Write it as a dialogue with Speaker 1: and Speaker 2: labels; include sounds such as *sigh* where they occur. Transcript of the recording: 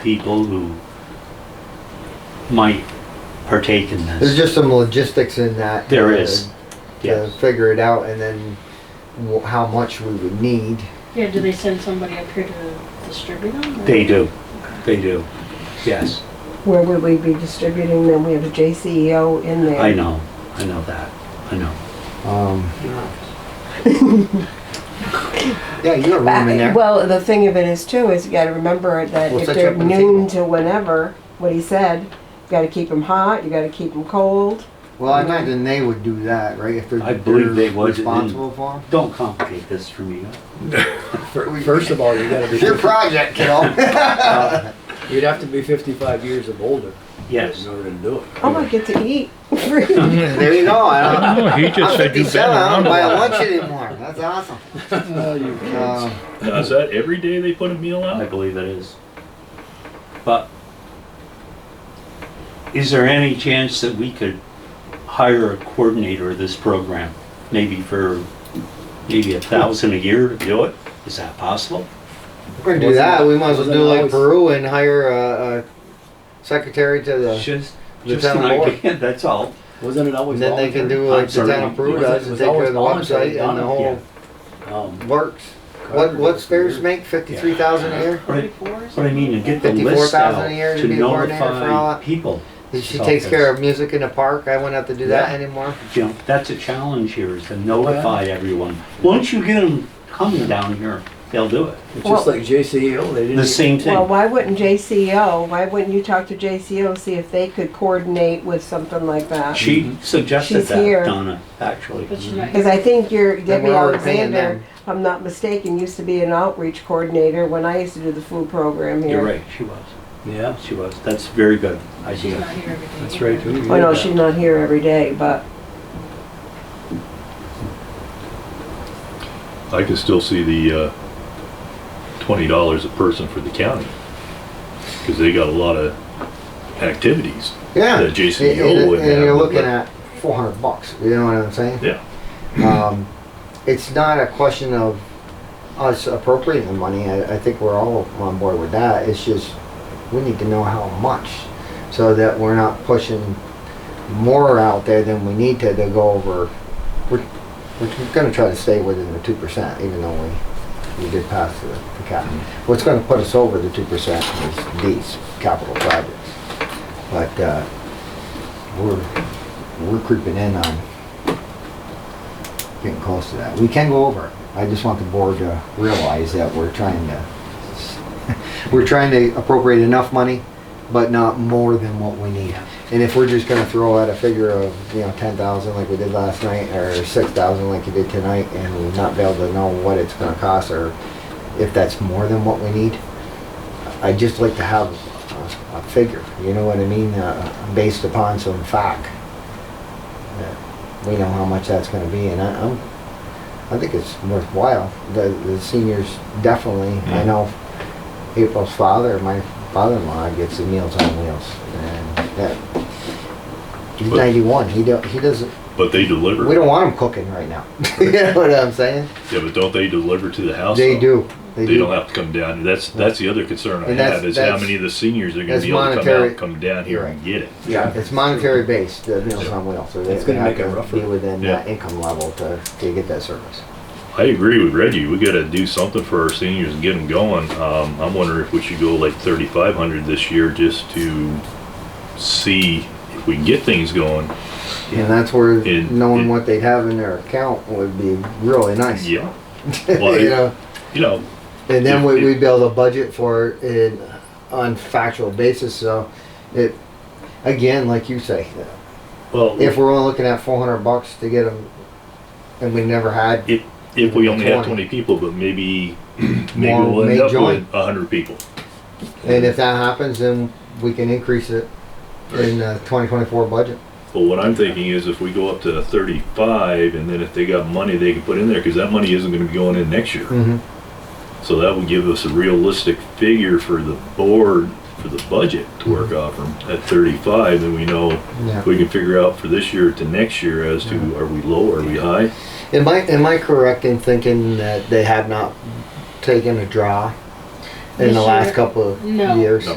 Speaker 1: people who might partake in
Speaker 2: There's
Speaker 1: this.
Speaker 2: just some logistics in that.
Speaker 1: There
Speaker 2: to-
Speaker 1: is,
Speaker 2: To
Speaker 1: yes.
Speaker 2: figure it out and then wh- how much we would need.
Speaker 3: Yeah, do they send somebody up here to distribute them? or-
Speaker 1: They do, they do, yes,
Speaker 4: Where would we be distributing them? We have a JCEO in there.
Speaker 1: I know, I know that, I know.
Speaker 2: Um, *laughs* Yeah, you got room in
Speaker 4: Uh,
Speaker 2: there.
Speaker 4: Well, the thing of it is too, is you gotta remember that
Speaker 2: We'll
Speaker 4: if
Speaker 2: set you
Speaker 4: they're
Speaker 2: up with a
Speaker 4: noon
Speaker 2: table.
Speaker 4: to whenever, what he said, you gotta keep them hot, you gotta keep them cold.
Speaker 2: Well, I imagine they would do that, right? If they're
Speaker 1: I believe they
Speaker 2: they're
Speaker 1: would, and-
Speaker 2: Responsible for
Speaker 1: Don't complicate this for me.
Speaker 5: Fir- First of all, you gotta
Speaker 2: them. Your
Speaker 5: be,
Speaker 2: project,
Speaker 1: *laughs*
Speaker 2: kiddo.
Speaker 5: you'd have to be fifty-five years of older
Speaker 1: Yes,
Speaker 5: in order to do it.
Speaker 4: Oh, I get to
Speaker 2: *laughs*
Speaker 4: eat.
Speaker 2: *laughs* There you go. I don't-
Speaker 6: No, he just
Speaker 2: I'm
Speaker 6: said you've been
Speaker 2: 57, I
Speaker 6: around
Speaker 2: don't
Speaker 6: a
Speaker 2: buy
Speaker 6: while.
Speaker 2: a lunch anymore. That's awesome.
Speaker 5: Oh, you
Speaker 2: Um,
Speaker 6: Now, Is that every day they put a meal
Speaker 1: I
Speaker 6: out?
Speaker 1: believe it is. But is there any chance that we could hire a coordinator of this program? Maybe for, maybe a thousand a year to do it? Is that possible?
Speaker 2: We're gonna do that. We might as well do like
Speaker 5: Wasn't always-
Speaker 2: Peru and hire a, a secretary to
Speaker 1: It's
Speaker 2: the.
Speaker 1: Just, just an
Speaker 2: Lieutenant Moore.
Speaker 1: idea, *laughs* that's all.
Speaker 5: Wasn't it always
Speaker 2: And then they can do
Speaker 1: I'm
Speaker 2: like the
Speaker 1: sorry.
Speaker 2: town of Peru
Speaker 5: It was-
Speaker 2: does
Speaker 5: it
Speaker 2: and take
Speaker 5: was
Speaker 2: care
Speaker 5: always
Speaker 2: of the
Speaker 5: voluntary,
Speaker 2: website and the
Speaker 5: done,
Speaker 2: whole
Speaker 5: can.
Speaker 2: works. What, what's theirs make? Fifty-three thousand a year?
Speaker 1: Right.
Speaker 3: Forty-four or
Speaker 1: What I
Speaker 3: something?
Speaker 1: mean, and get the
Speaker 2: 54,000
Speaker 1: list out
Speaker 2: a year to
Speaker 1: to
Speaker 2: be a coordinator for all
Speaker 1: notify
Speaker 2: that?
Speaker 1: people.
Speaker 2: She takes care of music in the park. I wouldn't have to do that
Speaker 1: Yeah.
Speaker 2: anymore.
Speaker 1: You know, that's a challenge here, is to notify everyone. Once you get them coming down here, they'll do it.
Speaker 5: It's
Speaker 4: Well-
Speaker 5: just like JCEO, they didn't.
Speaker 1: The same
Speaker 4: Well,
Speaker 1: thing.
Speaker 4: why wouldn't JCEO, why wouldn't you talk to JCEO, see if they could coordinate with something like that?
Speaker 1: She Mhm. suggested
Speaker 4: She's here.
Speaker 1: that, Donna, actually. Mhm.
Speaker 3: But she's not
Speaker 4: Cause
Speaker 3: here.
Speaker 4: I think your Debbie
Speaker 2: we're already paying
Speaker 4: Alexander,
Speaker 2: them.
Speaker 4: if I'm not mistaken, used to be an outreach coordinator when I used to do the food program here.
Speaker 1: You're right, she was.
Speaker 5: Yeah,
Speaker 1: She was. That's very good
Speaker 3: She's not
Speaker 1: idea.
Speaker 3: here every day.
Speaker 5: that's right. we
Speaker 4: Oh, no,
Speaker 5: did that.
Speaker 4: she's not here every day, but
Speaker 6: I can still see the, uh, twenty dollars a person for the county. Cause they got a lot of activities.
Speaker 2: Yeah.
Speaker 6: That JCEO
Speaker 2: And- and-
Speaker 6: would
Speaker 2: And
Speaker 6: have,
Speaker 2: you're
Speaker 6: but-
Speaker 2: looking at four hundred bucks. You know what I'm saying?
Speaker 6: Yeah.
Speaker 2: Um, it's not a question of us appropriating the money. I, I think we're all on board with that. It's just, we need to know how much so that we're not pushing more out there than we need to to go over. We're, we're gonna try to stay within the two percent, even though we, we did pass the, the cap. What's gonna put us over the two percent is these capital projects. But, uh, we're, we're creeping in on getting close to that. We can go over. it. I just want the board to realize that we're trying to, we're trying to appropriate enough money, but not more than what we need. And if we're just gonna throw out a figure of, you know, ten thousand like we did last night, or six thousand like you did tonight, and we're not be able to know what it's gonna cost, or if that's more than what we need, I'd just like to have a, a figure, you know what I mean, uh, based upon some fact we know how much that's gonna be, and I, I'm, I think it's worthwhile. The, the seniors definitely, I know April's father, my father-in-law gets the Meals on Wheels, and that, he's
Speaker 6: But-
Speaker 2: ninety-one, he don't, he doesn't,
Speaker 6: But they
Speaker 2: we
Speaker 6: deliver.
Speaker 2: don't want him cooking right now. *laughs* You know what I'm saying?
Speaker 6: Yeah, but don't they deliver to the house?
Speaker 2: They
Speaker 6: though?
Speaker 2: do, they
Speaker 6: They don't
Speaker 2: do.
Speaker 6: have to come down. That's, that's the other concern I
Speaker 2: And that's-
Speaker 6: have, is how
Speaker 2: that's-
Speaker 6: many of the seniors are gonna
Speaker 2: that's
Speaker 6: be able to come
Speaker 2: monetary-
Speaker 6: out, come down here and get it.
Speaker 2: Yeah, it's monetary based, the Meals
Speaker 6: Yeah.
Speaker 2: on Wheels, so
Speaker 5: It's
Speaker 2: they
Speaker 5: gonna
Speaker 2: have
Speaker 5: make it
Speaker 2: to
Speaker 5: rougher.
Speaker 2: be within
Speaker 6: Yeah.
Speaker 2: that income level to, to get that service.
Speaker 6: I agree with Reggie. We got to do something for our seniors and get them going. Um, I'm wondering if we should go like 3,500 this year just to see if we can get things going.
Speaker 2: And that's where
Speaker 6: It-
Speaker 2: knowing
Speaker 6: it-
Speaker 2: what they'd have in their account would be really nice.
Speaker 6: Yeah.
Speaker 2: *laughs*
Speaker 6: Well,
Speaker 2: You know?
Speaker 6: You know,
Speaker 2: And then
Speaker 6: If
Speaker 2: we, we
Speaker 6: it-
Speaker 2: build a budget for it in, on factual basis, so it, again, like you say,
Speaker 6: well,
Speaker 2: if
Speaker 6: if,
Speaker 2: we're only looking at four hundred bucks to get them, and we never had,
Speaker 6: we only have
Speaker 2: 20.
Speaker 6: 20 people, but maybe, *clears throat* maybe
Speaker 2: More
Speaker 6: we'll
Speaker 2: may
Speaker 6: end up
Speaker 2: join.
Speaker 6: with 100 people.
Speaker 2: and if that happens, then we can increase it in the twenty twenty-four budget.
Speaker 6: But what I'm thinking is if we go up to 35 and then if they got money they can put in there because that money isn't going to be going in next year.
Speaker 2: Mm-hmm.
Speaker 6: So that would give us a realistic figure for the board, for the budget to work off from at 35, then we know
Speaker 2: Yeah.
Speaker 6: we can figure out for this year to next year as to are we low, are we high?
Speaker 2: Am I, am I correct in thinking that they have not taken a draw in
Speaker 3: This
Speaker 2: the last
Speaker 3: year?
Speaker 2: couple of
Speaker 3: No.
Speaker 2: years?
Speaker 6: No.